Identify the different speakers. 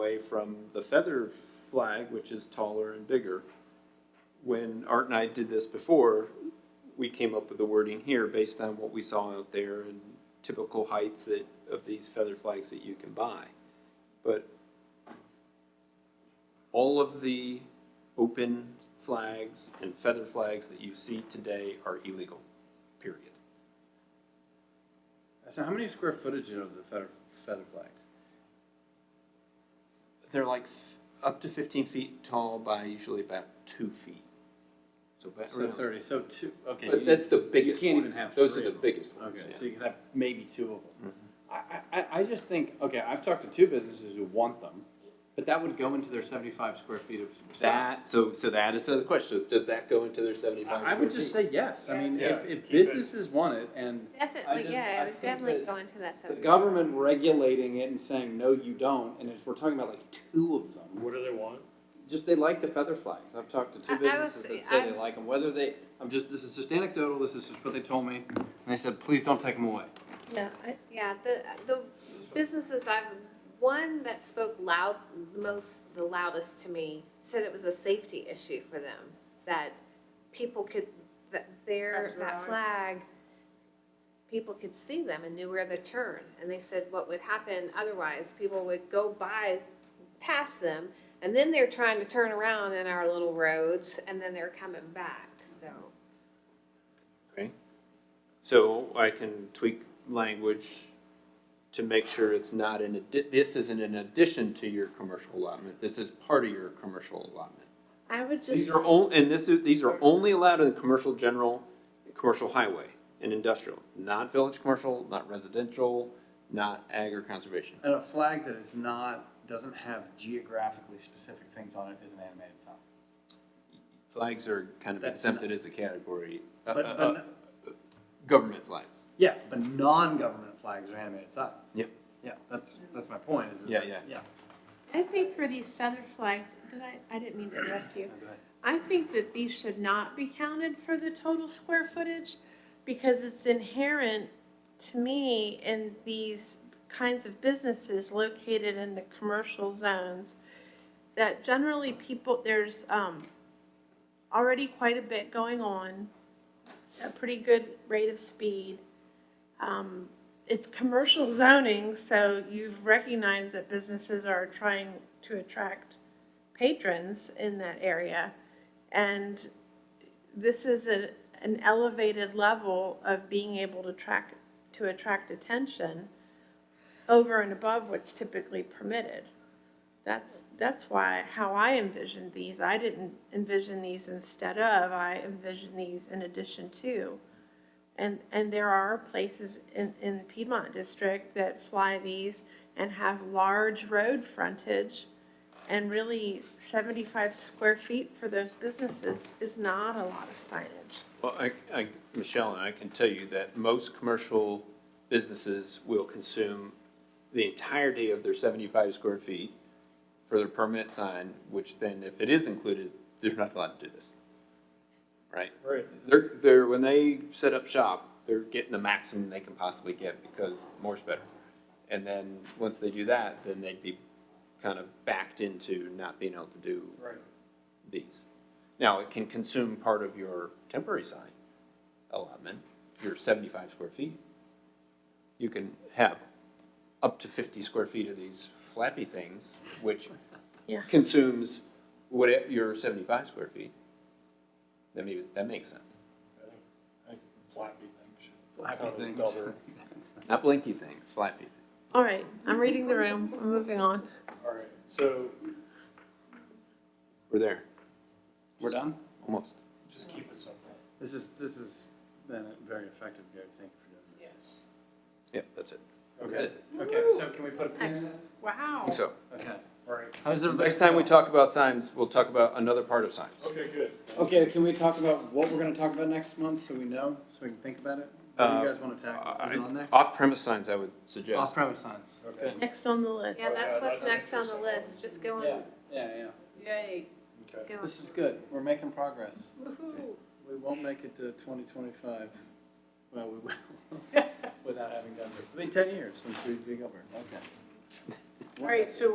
Speaker 1: away from the feather flag, which is taller and bigger. When Art and I did this before, we came up with the wording here based on what we saw out there and typical heights that, of these feather flags that you can buy. But all of the open flags and feather flags that you see today are illegal, period.
Speaker 2: So how many square footage of the feather, feather flags?
Speaker 1: They're like f- up to fifteen feet tall by usually about two feet. So about
Speaker 2: So
Speaker 1: around-
Speaker 2: thirty, so two, okay.
Speaker 1: But
Speaker 2: you-
Speaker 1: that's the
Speaker 2: you
Speaker 1: biggest
Speaker 2: can't even
Speaker 1: ones.
Speaker 2: have
Speaker 1: Those
Speaker 2: three
Speaker 1: are the
Speaker 2: of them.
Speaker 1: biggest ones.
Speaker 2: Okay,
Speaker 1: yeah. Mm-hmm.
Speaker 2: so you could have maybe two of them. I, I, I just think, okay, I've talked to two businesses who want them, but that would go into their seventy-five square feet of.
Speaker 1: That so so that is another question. Does that go into their seventy five?
Speaker 2: I I would just say yes, I mean,
Speaker 3: Yeah.
Speaker 2: if,
Speaker 3: Yeah,
Speaker 2: if
Speaker 3: keep it.
Speaker 2: businesses want it and I just-
Speaker 4: Definitely,
Speaker 2: I
Speaker 4: yeah, it would
Speaker 2: think
Speaker 4: definitely
Speaker 2: that
Speaker 4: go into that
Speaker 2: the
Speaker 4: subject.
Speaker 2: government regulating it and saying, no, you don't, and if we're talking about like two of them.
Speaker 3: What do they want?
Speaker 2: Just they like the feather flags. I've talked to
Speaker 4: I-
Speaker 2: two
Speaker 4: I
Speaker 2: businesses
Speaker 4: was-
Speaker 2: that say
Speaker 4: I'm-
Speaker 2: they like them. Whether they, I'm just this is just anecdotal. This is just what they told me, and they said please don't take them away.
Speaker 5: Yeah, I,
Speaker 4: Yeah, the, the businesses I've, one that spoke loud, most, the loudest to me, said it was a safety issue for them, that people could, that their, that
Speaker 5: Observe.
Speaker 4: flag, people could see them and knew where to turn. And they said what would happen otherwise, people would go by, past them, and then they're trying to turn around in our little roads, and then they're coming back, so.
Speaker 1: Okay. So I can tweak language to make sure it's not an, addi- this isn't an addition to your commercial allotment. This is part of your commercial allotment.
Speaker 5: I would
Speaker 1: These
Speaker 5: just,
Speaker 1: are on, and this is, these are only allowed in the commercial general, commercial highway and industrial, not village commercial, not residential, not ag or conservation.
Speaker 2: And a flag that is not doesn't have geographically specific things on it is an animated sign.
Speaker 1: Flags are kind of
Speaker 2: That's
Speaker 1: exempted as a category, uh,
Speaker 2: But,
Speaker 1: uh,
Speaker 2: but
Speaker 1: uh, government flags.
Speaker 2: yeah, but non-government flags are animated signs.
Speaker 1: Yep.
Speaker 2: Yeah, that's that's my point. Is that-
Speaker 1: Yeah, yeah.
Speaker 2: yeah.
Speaker 5: I think for these feather flags, did I, I didn't mean to interrupt you. I think that these should not be counted for the total square footage because it's inherent to me in these kinds of businesses located in the commercial zones that generally people, there's, um, already quite a bit going on, a pretty good rate of speed. Um, it's commercial zoning, so you've recognized that businesses are trying to attract patrons in that area. And this is a, an elevated level of being able to track, to attract attention over and above what's typically permitted. That's, that's why, how I envisioned these, I didn't envision these instead of, I envisioned these in addition to. And, and there are places in, in Piedmont District that fly these and have large road frontage. And really, seventy-five square feet for those businesses is not a lot of signage.
Speaker 1: Well, I, I, Michelle, and I can tell you that most commercial businesses will consume the entirety of their seventy-five square feet for their permanent sign, which then if it is included, they're not allowed to do this. Right?
Speaker 3: Right.
Speaker 1: They're, they're, when they set up shop, they're getting the maximum they can possibly get because more's better. And then, once they do that, then they'd be kind of backed into not being able to do
Speaker 3: Right.
Speaker 1: these. Now, it can consume part of your temporary sign allotment, your seventy-five square feet. You can have up to fifty square feet of these flappy things, which
Speaker 5: Yeah.
Speaker 1: consumes what, your seventy-five square feet. That maybe, that makes sense.
Speaker 3: I think Flappy things.
Speaker 2: Flappy
Speaker 3: Kind of
Speaker 2: things.
Speaker 3: double.
Speaker 1: Not blinky things, flappy.
Speaker 5: All right, I'm reading the room, I'm moving on.
Speaker 3: All right, so
Speaker 1: We're there,
Speaker 2: We're done.
Speaker 1: almost.
Speaker 3: just keep it simple.
Speaker 2: This is this has been a very effective, Gary. Thank you for doing this.
Speaker 1: Yep, that's it. That's
Speaker 3: Okay,
Speaker 1: it.
Speaker 2: Okay, so can we put a pin in this?
Speaker 5: Wow.
Speaker 1: I think so.
Speaker 2: Okay.
Speaker 3: all right.
Speaker 2: How's everybody?
Speaker 1: Next time we talk about signs, we'll talk about another part of signs.
Speaker 3: Okay, good.
Speaker 2: Okay, can we talk about what we're gonna talk about next month, so we know, so we can think about it? What do you
Speaker 1: Uh,
Speaker 2: guys wanna tackle? Is it on there?
Speaker 1: Off-premise signs, I would suggest.
Speaker 2: Off-premise signs.
Speaker 3: Okay.
Speaker 5: Next on the list.
Speaker 4: Yeah, that's what's
Speaker 3: Yeah,
Speaker 4: next
Speaker 3: that's-
Speaker 4: on the list, just go
Speaker 2: Yeah,
Speaker 4: on,
Speaker 2: yeah, yeah.
Speaker 5: Yay.
Speaker 3: Okay.
Speaker 4: go on.
Speaker 2: This is good. We're making progress.
Speaker 4: Woohoo.
Speaker 2: We won't make it to twenty twenty-five. Well, we will, without having done this. It's been ten years since we've been over, okay.
Speaker 5: All right, so